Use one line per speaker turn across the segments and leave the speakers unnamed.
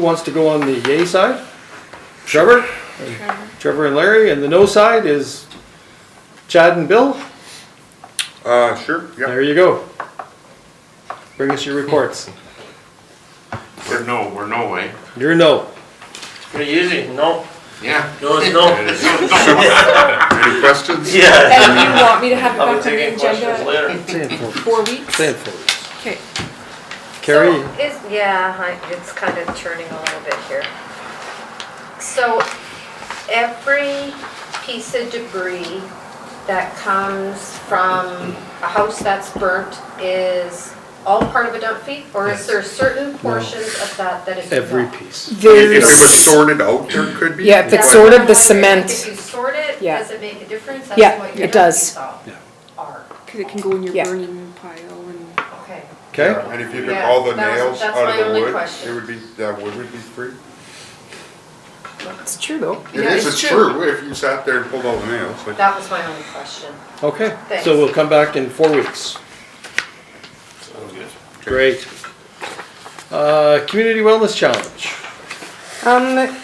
Who wants to go on the yay side? Trevor? Trevor and Larry, and the no side is Chad and Bill?
Uh, sure, yeah,
There you go. Bring us your reports.
We're no, we're no way.
You're no.
Pretty easy, no,
Yeah.
no is no.
It is. No.
any questions?
Yeah.
And you want me to have it
I'll be
back on the
taking questions
agenda
later.
Say it for-
four weeks?
say it for us.
Okay,
Carrie,
So Is, yeah, I- it's kind of churning a little bit here. So every piece of debris that comes from a house that's burnt is all part of a dump fee? Or is there certain portions of that that is?
every
not?
piece.
If it was
There's,
sorted out, there could be.
Yeah, if it's
That's
sorted,
what I'm
the
wondering.
cement-
If you sort it,
Yeah.
does it make a difference?
Yeah,
That's what your dump
it does.
fees all
Yeah.
Are,
because it can go in your
Yeah.
burning pile and.
okay.
Okay?
And if you took
Yeah,
all the
that was-
nails
that's
out
my
of the
only
wood,
question.
it would be, that wood would be free?
it's true though.
It
Yeah,
is,
it's
it's
true.
true, if you sat there and pulled all the nails, like,
That was my only question.
Okay,
Thanks.
so we'll come back in four weeks.
Sounds good.
Great. Uh, Community Wellness Challenge.
Um,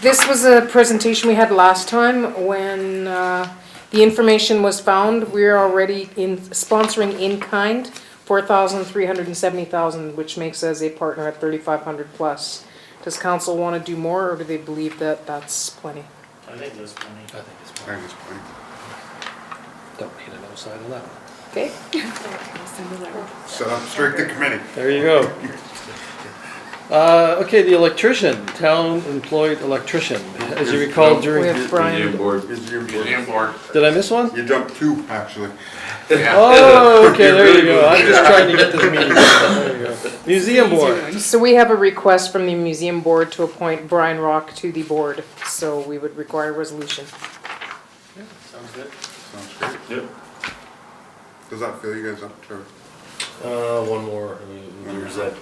this was a presentation we had last time when, uh, the information was found. We're already in, sponsoring in kind four thousand three hundred and seventy thousand, which makes us a partner at thirty-five hundred plus. Does council wanna do more or do they believe that that's plenty?
I think that's funny.
I think it's fine.
that was fine.
Don't need a no side on that one.
Okay,
So I'm strict the committee.
There you go. Uh, okay, the electrician, town employed electrician. As you recall
we
during,
have Brian.
Is your-
Museum board.
did I miss one?
You jumped two, actually.
Yeah.
Oh, okay, there you go. I'm just trying to get this meeting. There you go. Museum board.
So we have a request from the museum board to appoint Brian Rock to the board, so we would require a resolution.
Sounds good.
Sounds great.
Yep.
Does that fill you guys up, Trevor?
Uh, one more. I mean, There's that.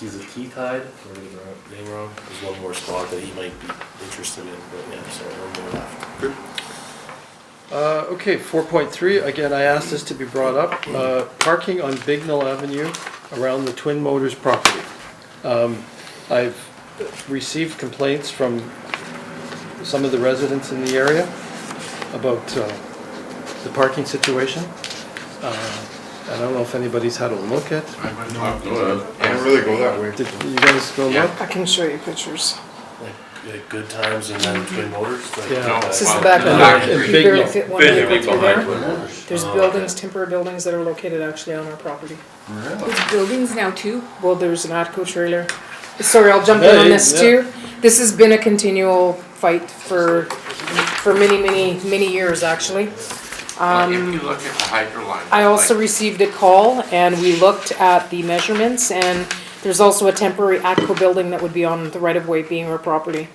He's a key tied. If I'm getting the wrong- name wrong. There's one more spot that he might be interested in, but yeah, sorry, one more left.
Good.
Uh, okay, four point three, again, I asked this to be brought up, uh, parking on Bignell Avenue around the Twin Motors property. Um, I've received complaints from some of the residents in the area about, uh, the parking situation. Uh, I don't know if anybody's had a look at,
I went
No,
up
no,
to-
I don't really go that way.
did you guys go look?
I can show you pictures.
Like, like good times and then twin motors. Like,
Yeah.
No,
This is the
well,
back
no,
Back.
of the, you
Big
barely
one.
fit one
Big
vehicle through
behind
there.
one.
There's
Oh,
buildings, temporary buildings that are located actually on our property.
There's buildings now too?
Well, there's an Atco trailer. Sorry, I'll jump in on
Hey,
this
yeah.
too. This has been a continual fight for, for many, many, many years, actually.
Well, If you look at the hydro line.
Um, I also
like,
received a call and we looked at the measurements and there's also a temporary ATCO building that would be on the right of way being our property.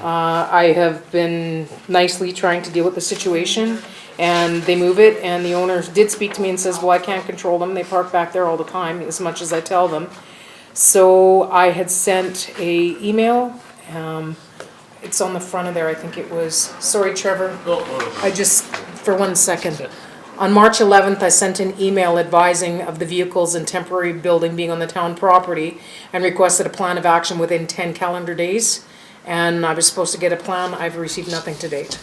Uh, I have been nicely trying to deal with the situation and they move it and the owner did speak to me and says, well, I can't control them. They park back there all the time as much as I tell them. So I had sent a email, um, it's on the front of there, I think it was, sorry Trevor,
No, no, no.
I just, for one second. On March 11th, I sent an email advising of the vehicles and temporary building being on the town property and requested a plan of action within 10 calendar days. And I was supposed to get a plan. I've received nothing to date.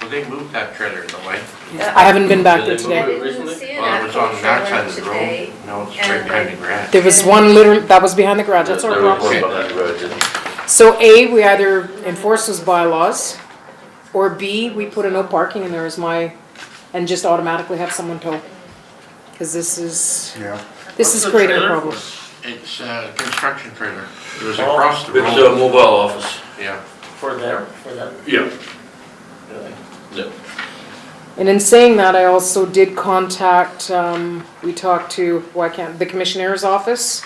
Well, they moved that trailer in the way.
I haven't been back there
Did they move
today.
it
Didn't see
recently?
an
Well, it was on
actual
that side
trailer
of the
today.
road. Now it's right
and-
behind the grass.
There was one literally, that was behind the garage. That's our
There was
property.
one behind the road, didn't
So A, we either enforce those bylaws, or B, we put a no parking in there as my, and just automatically have someone tow. Because this is,
Yeah.
this is
What's the
creating a
trailer?
problem.
It's a construction trailer. It was
Oh.
across the
It's a
road.
mobile office.
Yeah.
For them, for them,
Yeah.
really?
Yeah.
And in saying that, I also did contact, um, we talked to, why can't, the commissioner's office,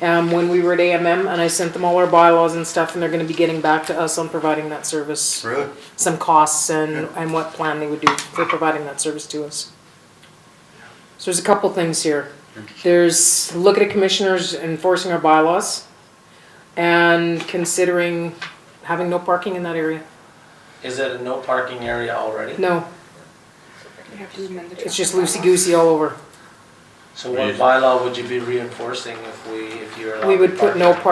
um, when we were at AMM, and I sent them all our bylaws and stuff, and they're gonna be getting back to us on providing that service.
Really?
Some costs and, and what plan they would do for providing that service to us. So there's a couple things here. There's, look at a commissioners enforcing our bylaws, and considering having no parking in that area.
Is it a no parking area already?
No,
We have to amend the.
it's just loosey-goosey all over.
So what
Reason.
bylaw would you be reinforcing if we, if you're allowed?
We would put no
parking?